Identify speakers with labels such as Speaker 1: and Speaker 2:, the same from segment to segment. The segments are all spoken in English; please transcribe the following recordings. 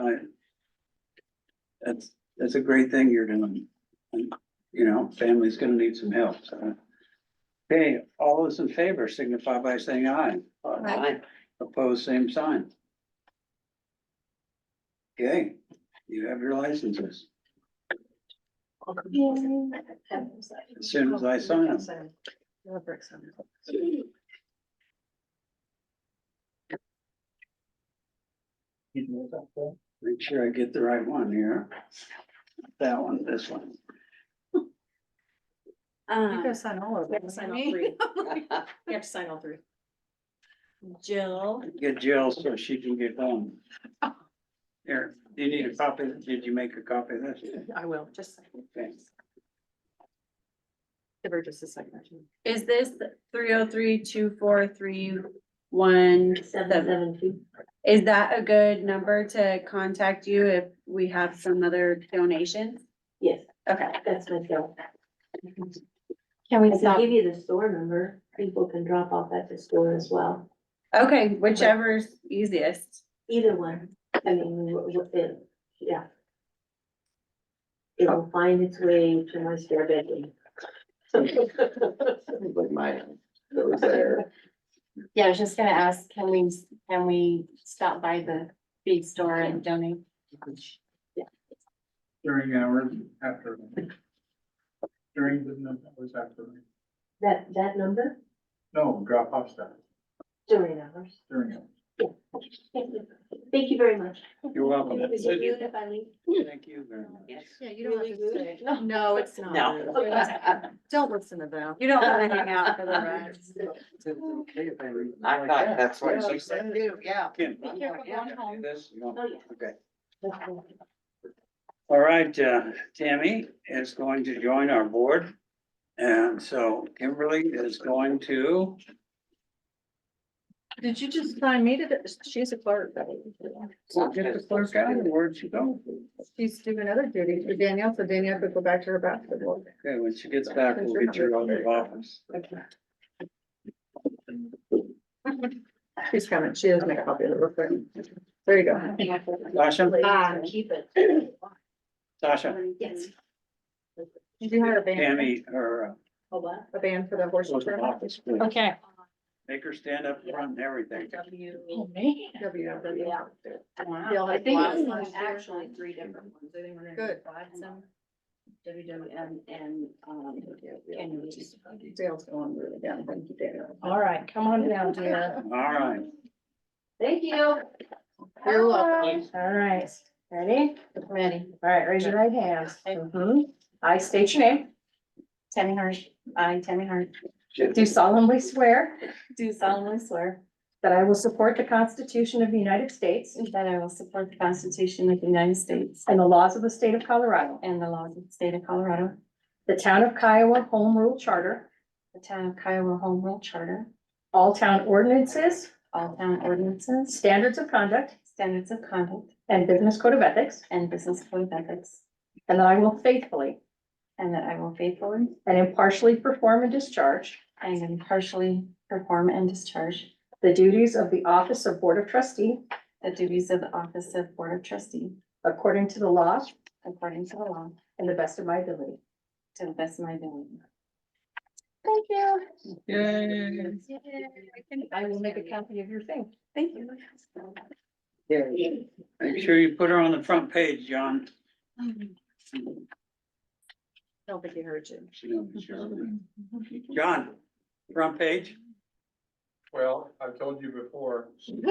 Speaker 1: I. That's, that's a great thing you're doing. And, You know, family's gonna need some help, so. Okay, all those in favor signify by saying aye.
Speaker 2: Aye.
Speaker 1: Opposed, same sign. Okay, you have your licenses.
Speaker 2: As
Speaker 1: soon as I sign 'em. Make sure I get the right one here. That one, this one.
Speaker 2: You
Speaker 3: Um,
Speaker 2: gotta sign all of
Speaker 3: We
Speaker 2: them.
Speaker 3: have to sign all three.
Speaker 2: You have to sign all three.
Speaker 3: Jill,
Speaker 1: Get Jill so she can get home. Here, do you need a copy? Did you make a copy of this?
Speaker 2: I will, just.
Speaker 1: Thanks.
Speaker 2: Give her just a second.
Speaker 3: is this three oh three two four three one seven?
Speaker 2: two.
Speaker 3: Is that a good number to contact you if we have some other donations?
Speaker 4: Yes,
Speaker 3: Okay,
Speaker 4: that's my cell.
Speaker 3: can we
Speaker 4: I can
Speaker 3: stop?
Speaker 4: give you the store number. People can drop off at the store as well.
Speaker 3: Okay, whichever's easiest.
Speaker 4: Either one. I mean, wh- wh- it- yeah. It'll find its way to my spare bedroom.
Speaker 5: Like mine, that was there.
Speaker 6: Yeah, I was just gonna ask, can we, can we stop by the feed store and donate?
Speaker 1: During hours after. During the numbers after,
Speaker 4: That, that number
Speaker 1: no, drop off stuff
Speaker 4: during hours.
Speaker 1: during.
Speaker 4: Thank you. Thank you very much.
Speaker 1: You're welcome.
Speaker 4: Is it rude if I leave?
Speaker 1: Thank you very much.
Speaker 6: Yeah, you
Speaker 4: don't have to say.
Speaker 2: No, it's not.
Speaker 6: No.
Speaker 2: Don't listen to them.
Speaker 3: You don't wanna hang out for the rest.
Speaker 5: I thought that's what she said.
Speaker 1: Yeah. Kim.
Speaker 6: Be careful going home.
Speaker 1: This, you want-
Speaker 4: Oh, yeah.
Speaker 1: okay. All right, uh, Tammy is going to join our board. And so Kimberly is going to,
Speaker 2: Did you just sign me to, the- she's a clerk.
Speaker 1: we'll get the clerk out and where'd she go?
Speaker 2: She's doing other duties for Danielle, so Danielle could go back to her basketball.
Speaker 1: Okay, when she gets back, we'll get you out of the office.
Speaker 2: She's coming. She has my copy of it real quick. There you go.
Speaker 1: Sasha,
Speaker 4: Ah, keep it.
Speaker 1: Sasha,
Speaker 4: Yes.
Speaker 2: Did you hire a band?
Speaker 1: Tammy, uh, or
Speaker 4: Oh, what?
Speaker 2: A band for the
Speaker 1: uh,
Speaker 2: horse
Speaker 1: close the
Speaker 2: tournament?
Speaker 1: office, please.
Speaker 6: Okay.
Speaker 1: Make her stand up front and everything.
Speaker 4: W.
Speaker 2: WW.
Speaker 4: Yeah.
Speaker 2: They'll
Speaker 4: I
Speaker 2: have
Speaker 4: think
Speaker 2: lots
Speaker 4: it
Speaker 2: of
Speaker 4: was
Speaker 2: ones there.
Speaker 4: actually three different ones. I think we're gonna
Speaker 2: Good.
Speaker 4: do Watson, WWM and, um, and.
Speaker 2: Dale's going really down. Thank you, Dale.
Speaker 6: All right, come on down, dear.
Speaker 1: All right,
Speaker 4: Thank you.
Speaker 2: You're welcome.
Speaker 6: All right, ready? Ready. All right, raise your right hand. Mhm. I state your name. Tammy Hart, I, Tammy Hart, do solemnly swear
Speaker 3: Do solemnly swear
Speaker 6: that I will support the Constitution of the United States
Speaker 3: that I will support the Constitution of the United States
Speaker 6: and the laws of the state of Colorado,
Speaker 3: and the laws of the state of Colorado,
Speaker 6: the town of Kiowa Home Rule Charter,
Speaker 3: the town of Kiowa Home Rule Charter,
Speaker 6: all town ordinances,
Speaker 3: all town ordinances,
Speaker 6: standards of conduct,
Speaker 3: standards of conduct,
Speaker 6: and business code of ethics,
Speaker 3: and business code of ethics,
Speaker 6: and that I will faithfully
Speaker 3: and that I will faithfully
Speaker 6: and impartially perform and discharge
Speaker 3: and impartially perform and discharge
Speaker 6: the duties of the office of Board of Trustee
Speaker 3: the duties of the office of Board of Trustee
Speaker 6: according to the law
Speaker 3: according to the law,
Speaker 6: and the best of my ability.
Speaker 3: to the best of my ability.
Speaker 6: Thank you.
Speaker 1: yay.
Speaker 6: I will make a copy of your thing.
Speaker 3: Thank you.
Speaker 1: Make sure you put her on the front page, John.
Speaker 2: Don't think you heard you.
Speaker 1: She knows it's your- John, front page.
Speaker 7: Well, I've told you before, if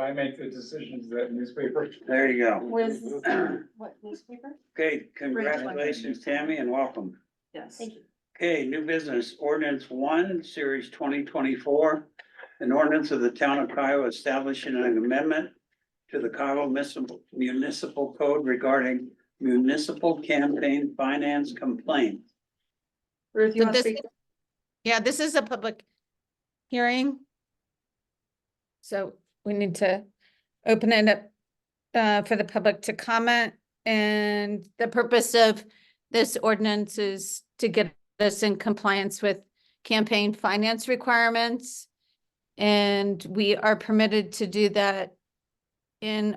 Speaker 7: I make the decisions, that newspaper.
Speaker 1: There you go.
Speaker 6: Was, what newspaper?
Speaker 1: Okay, congratulations, Tammy, and welcome.
Speaker 2: Yes.
Speaker 4: Thank you.
Speaker 1: Okay, new business ordinance one, series twenty twenty-four. An ordinance of the town of Kiowa establishing an amendment to the Kiowa municipal, municipal code regarding municipal campaign finance complaint.
Speaker 2: Ruth, you
Speaker 8: So
Speaker 2: want to
Speaker 8: this-
Speaker 2: speak?
Speaker 8: Yeah, this is a public hearing. So we need to open it up uh, for the public to comment. And the purpose of this ordinance is to get us in compliance with campaign finance requirements. And we are permitted to do that in